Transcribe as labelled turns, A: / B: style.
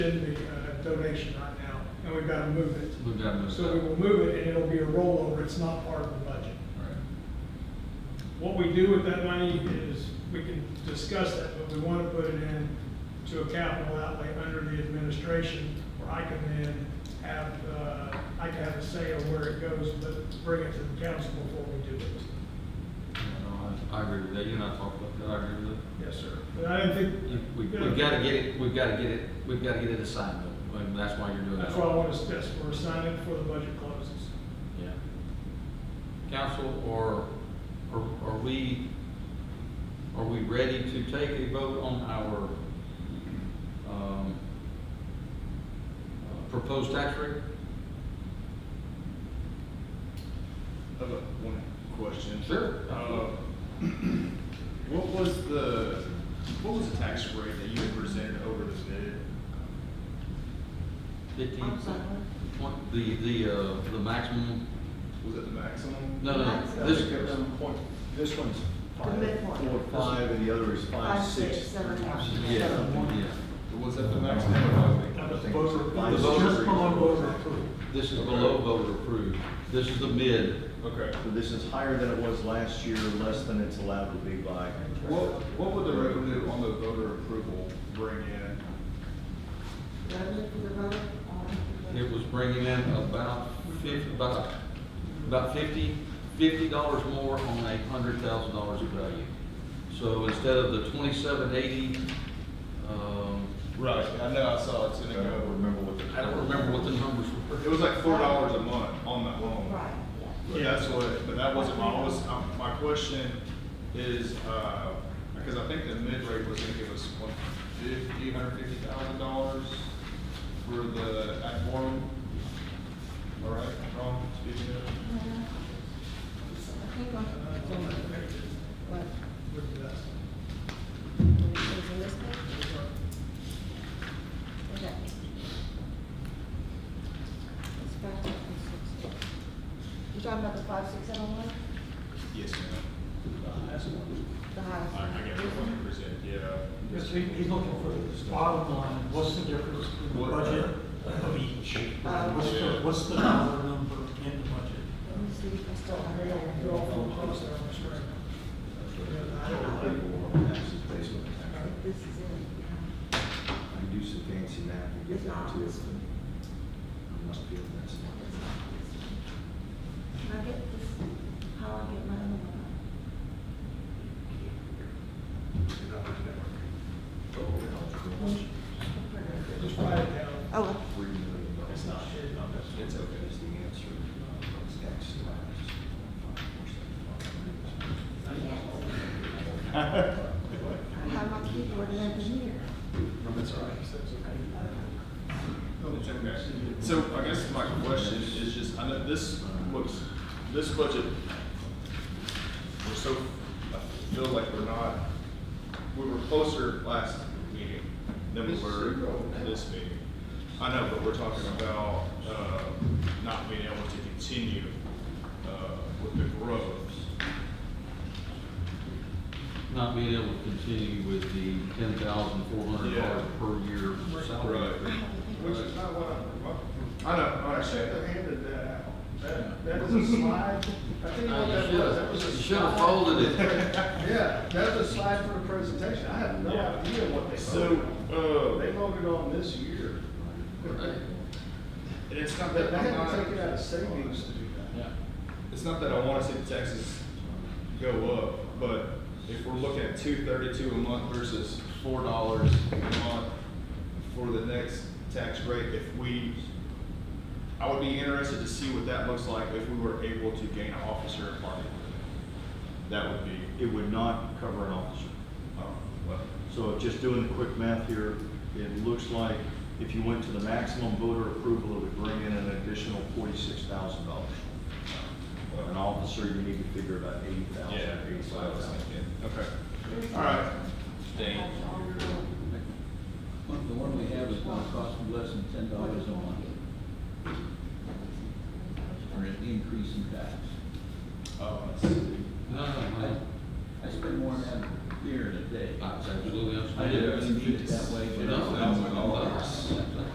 A: should be a donation right now, and we've got to move it.
B: Move down, move
A: So we will
B: down.
A: move it, and it'll be a rollover, it's not part of the budget.
B: Right.
A: What we do with that money is, we can discuss that, but we want to put it in to a capital outlay under the administration, where I can then have, uh, I can have a say on where it goes, but bring it to the council before we do it.
B: Yeah, no, I, I agree with that, you and I talked about that, I agree with that.
A: Yes, sir. But I don't think.
B: You- We, we've gotta get it, we've gotta get it, we've gotta get it assigned, though, and that's why you're doing that.
A: That's why I want us, that's, we're signing before the budget closes.
B: Yeah. Council, or, or are we, are we ready to take a vote on our, um, uh, proposed tax rate?
C: I've got one question.
B: Sure.
C: Uh, What was the, what was the tax rate that you had presented over the bid?
B: Fifteen?
D: I'm sorry.
B: Twen- The, the, uh, the maximum,
C: Was it the maximum?
B: no, no, no,
D: Maximum.
B: this,
E: This one's
D: The midpoint.
E: five, four, five, and the other is five,
D: Five, six,
E: six.
D: seven, eight.
B: yeah, yeah.
C: Was that the maximum?
A: That was
E: think
A: voter,
E: it's
A: that was
B: voter
A: just
C: approval.
A: below voter approval.
B: This is below voter approved. This is the mid.
C: Okay.
E: So this is higher than it was last year, less than it's allowed to be by.
C: What, what would the revenue on the voter approval bring in?
D: Revenue for the vote?
B: It was bringing in about fif, about, about fifty, fifty dollars more on a hundred thousand dollars of value. So instead of the twenty-seven eighty, um,
C: Right. I know, I saw it's
E: I
C: gonna
E: don't
C: go.
E: remember what the.
B: I don't remember what the numbers
C: It
B: were.
C: was like four dollars a month on that loan.
D: Right, yeah.
C: But that's what, but that wasn't my, I was, um, my question is, uh, because I think the mid-rate was gonna give us one fifty, hundred fifty thousand dollars for the ad forum. All right, wrong, speaking of,
D: I think on,
A: Uh, it's on that page.
D: what,
A: Look at that.
D: is it this page? Okay. It's back to the six. You're talking about the five, six, seven, one?
C: yes, ma'am.
D: The highest.
C: I, I get it, one hundred percent, yeah.
F: Yes, he- he's looking for the bottom line, what's the difference in the
C: What-
F: budget of each?
D: Uh,
F: What's the, what's the dollar number in the budget?
D: Let me see, if I still
A: I
D: have
A: mean,
D: it.
A: I'll go off on close there on the screen.
D: This is it.
E: I do some fancy math and
D: It's
E: get down
D: not
E: to it.
D: this one.
E: I'm not feeling that's
D: yeah. It's not this one. Can I get this, how I get my other one?
A: Just write it down.
D: Oh,
E: Three million dollars.
C: It's not, it's not, it's okay.
E: Is the answer, uh, tax slash.
D: I have my keyboard and everything here.
C: That's all right. It's okay. So I guess my question is just, I know this looks, this budget, we're so, I feel like we're not, we were closer last meeting than we were this meeting. I know, but we're talking about, uh, not being able to continue, uh, with the growth.
B: Not being able to continue with the ten thousand four hundred dollars per year salary.
C: Which is not what I, I know, I understand that.
A: handed that out. That, that was a slide. I think
B: Uh, you should've- You should have folded it.
A: Yeah, that was a slide for a presentation. I have
C: Yeah.
A: what they
C: So, uh,
A: voted on this year.
C: and it's not that, I'm not,
A: savings to do that.
B: Yeah.
C: it's not that I wanna see the taxes go up, but if we're looking at two thirty-two a month versus four dollars a month for the next tax rate, if we, I would be interested to see what that looks like if we were able to gain an officer in party. That would be,
E: It would not cover an officer.
C: um, well,
E: So just doing the quick math here, it looks like if you went to the maximum voter approval, it would bring in an additional forty-six thousand dollars. An
C: well,
E: officer, you need to figure about eighty thousand,
C: yeah, that's what I
E: eighty-five
C: was
E: thousand.
C: thinking, okay, all right. Thank
G: The one we have is gonna cost them less than ten dollars a month, or an increase in tax.
C: Oh, I see.
B: No, no,
G: I,
B: no.
G: I spend more than that beer in a day.
B: That's absolutely
G: I
B: understandable.
G: didn't mean it that way, but.
B: No,
C: Thousand dollars.